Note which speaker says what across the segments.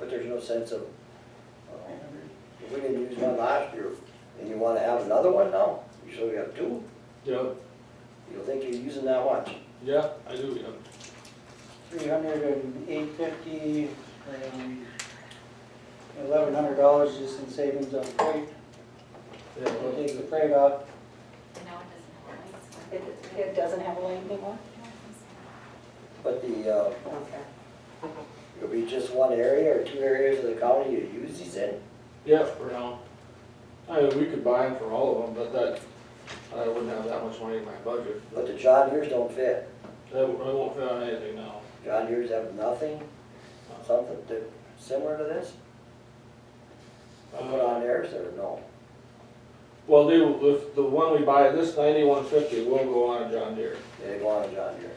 Speaker 1: there's no sense of, uh, if we didn't use one last year, and you wanna have another one now, you sure you have two,
Speaker 2: Yeah,
Speaker 1: you don't think you're using that much?
Speaker 2: yeah, I do, yeah.
Speaker 3: Three hundred and eight fifty, um, eleven hundred dollars just in savings on freight,
Speaker 2: Yeah,
Speaker 3: we'll
Speaker 2: well,
Speaker 3: take the freight off.
Speaker 4: And now it
Speaker 5: It,
Speaker 4: doesn't have lights.
Speaker 5: it doesn't have a lane anymore?
Speaker 1: But the, uh,
Speaker 5: Okay.
Speaker 1: it'll be just one area or two areas of the county you use these in?
Speaker 2: yeah, for now. I mean, we could buy them for all of them, but that, I wouldn't have that much money in my budget.
Speaker 1: But the John Deere's don't fit.
Speaker 2: That, w- I won't fit on anything now.
Speaker 1: John Deere's have nothing, something to- similar to this? I Put on theirs or no?
Speaker 2: Well, they, if the one we buy, this ninety-one fifty will go on a John Deere,
Speaker 1: They go on a John Deere.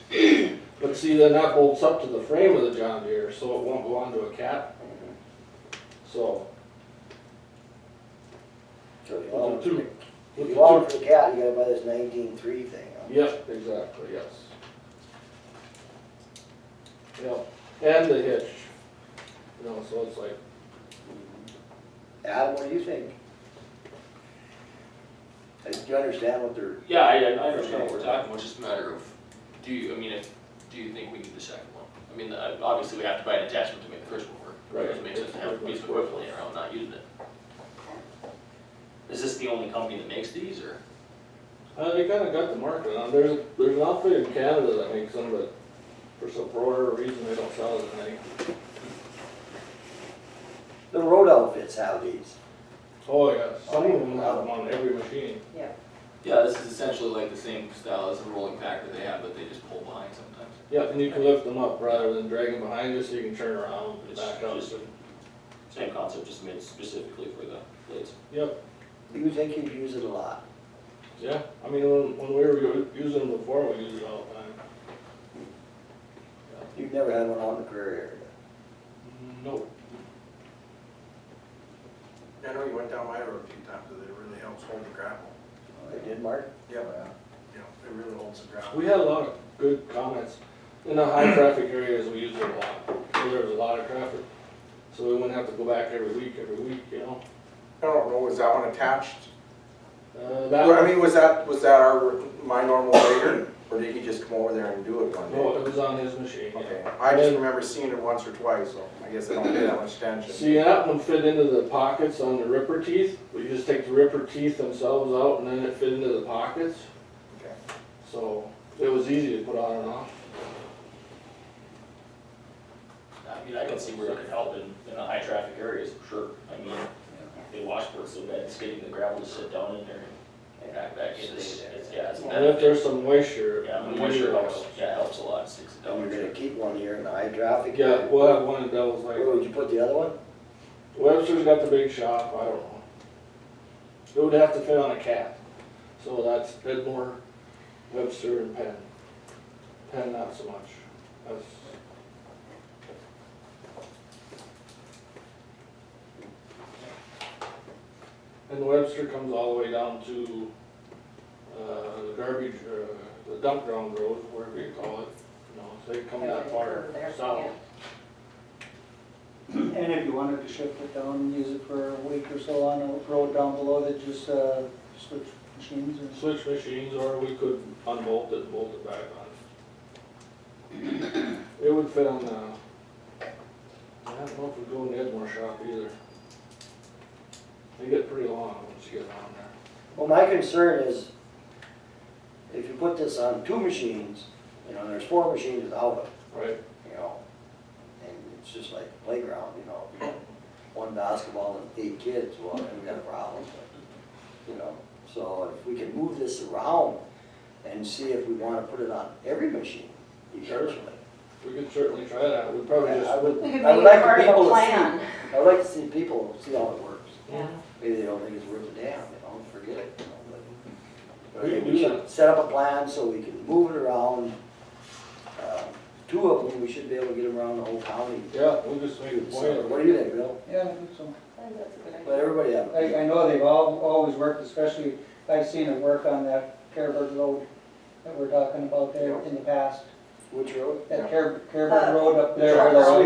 Speaker 2: yes. But see, then that bolts up to the frame of the John Deere, so it won't go onto a cap, so.
Speaker 1: So if you
Speaker 2: with
Speaker 1: want,
Speaker 2: the
Speaker 1: if
Speaker 2: two- with the
Speaker 1: you want
Speaker 2: two-
Speaker 1: for the cat, you gotta buy this nineteen three thing. huh?
Speaker 2: Yep, exactly, yes. Yep, and the hitch, you know, so it's like,
Speaker 1: Adam, what do you think? Like, Do you understand what they're,
Speaker 6: Yeah, I, I understand what we're talking about, it's just a matter of, do you, I mean, if, do you think we need the second one? I mean, I- obviously, we have to buy an attachment to make the first one work. It doesn't make sense to have a piece of equipment laying around not using it. Is this the only company that makes these, or?
Speaker 2: uh, they kinda got the market on, there's, there's an outfit in Canada that makes them, but for some, for whatever reason, they don't sell it in any.
Speaker 1: the road outfits have these.
Speaker 2: Oh, yeah, some of them have them on every machine.
Speaker 6: Yeah, this is essentially like the same style as the rolling pack that they have, but they just pull behind sometimes.
Speaker 2: Yep, and you can lift them up rather than dragging behind you, so you can turn around and
Speaker 6: It's
Speaker 2: back up.
Speaker 6: just- Same concept, just made specifically for the blades.
Speaker 2: Yep,
Speaker 1: Do you think you'd use it a lot?
Speaker 2: yeah, I mean, when, when we were u- using them before, we used it all the time.
Speaker 1: You've never had one on the prairie area.
Speaker 2: Nope.
Speaker 7: I know you went down my road a few times, but it really helps hold the gravel.
Speaker 1: They did, Oh, Mark?
Speaker 7: uh, You know, it really holds the gravel.
Speaker 2: We had a lot of good comments. In the high traffic areas, we used it a lot, so there was a lot of traffic. So we wouldn't have to go back every week, every week, you know?
Speaker 7: I don't know, was that one attached?
Speaker 2: Uh, that,
Speaker 7: Well, I mean, was that, was that our, my normal grader, or did he just come over there and do it one
Speaker 2: no, it
Speaker 7: day?
Speaker 2: was on his machine,
Speaker 7: Okay,
Speaker 2: yeah.
Speaker 7: I just remember seeing it once or twice, so I guess I don't pay that much attention.
Speaker 2: See, that one fit into the pockets on the ripper teeth. We just take the ripper teeth themselves out and then it fit into the pockets.
Speaker 7: Okay.
Speaker 2: So it was easy to put on and off.
Speaker 6: I mean, I can see where it could help in, in the high traffic areas, for sure. I mean, they washboard so bad, it's getting the gravel to sit down in there and back back in. It's, it's- yeah, it's a
Speaker 2: And if
Speaker 6: benefit.
Speaker 2: there's some moisture.
Speaker 6: Yeah, the moisture helps, yeah, it helps a lot, sticks it
Speaker 1: And
Speaker 6: down.
Speaker 1: you're gonna keep one here in the high traffic?
Speaker 2: Yeah,
Speaker 1: area?
Speaker 2: we'll have one of those like.
Speaker 1: Where would you put the other one?
Speaker 2: Webster's got the big shop, I don't know. It would have to fit on a cat, so that's Edmore, Webster, and Penn. Penn not so much, that's, and Webster comes all the way down to, uh, the garbage, uh, the dump ground road, wherever you call it, you know, so they come that far
Speaker 5: There,
Speaker 2: south.
Speaker 5: yeah.
Speaker 3: And if you wanted to shift it down and use it for a week or so on a road down below that just, uh, switch machines and.
Speaker 2: switch machines, or we could unbolt it, and bolt it back on. It would fit on, uh, I don't know if we go in the Edmore shop either. They get pretty long once you get on there.
Speaker 1: Well, my concern is, if you put this on two machines, you know, there's four machines without it.
Speaker 2: Right.
Speaker 1: you know, and it's just like playground, you know, one basketball and eight kids, well, then we got a problem, but, you know, so if we can move this around and see if we wanna put it on every machine eventually.
Speaker 2: We could certainly try that, we'd probably
Speaker 1: I
Speaker 2: just,
Speaker 1: would,
Speaker 5: We could
Speaker 1: I
Speaker 5: make
Speaker 1: would
Speaker 5: it
Speaker 1: like
Speaker 5: part
Speaker 1: the
Speaker 5: of a
Speaker 1: people to see,
Speaker 5: plan.
Speaker 1: I would like to see people see how it works.
Speaker 5: Yeah.
Speaker 1: Maybe they don't think it's worth a damn, you know, forget it, you know, but.
Speaker 2: We
Speaker 1: Maybe
Speaker 2: can
Speaker 1: we
Speaker 2: do
Speaker 1: should set up a plan so we can move it around. Uh, Two of them, we should be able to get around the whole county.
Speaker 2: yeah, we'll just make a point
Speaker 1: So,
Speaker 2: of
Speaker 1: What
Speaker 2: it.
Speaker 1: do you think, Bill?
Speaker 3: Yeah, I think so.
Speaker 5: That's a good idea.
Speaker 1: Let everybody have it.
Speaker 3: I, I know they've all, always worked, especially, I've seen it work on that Careburg Road that we're talking about there in the past.
Speaker 1: Which road?
Speaker 3: That Care,
Speaker 5: Uh,
Speaker 3: Careburg Road up there. where they're
Speaker 5: Charlotte.
Speaker 3: all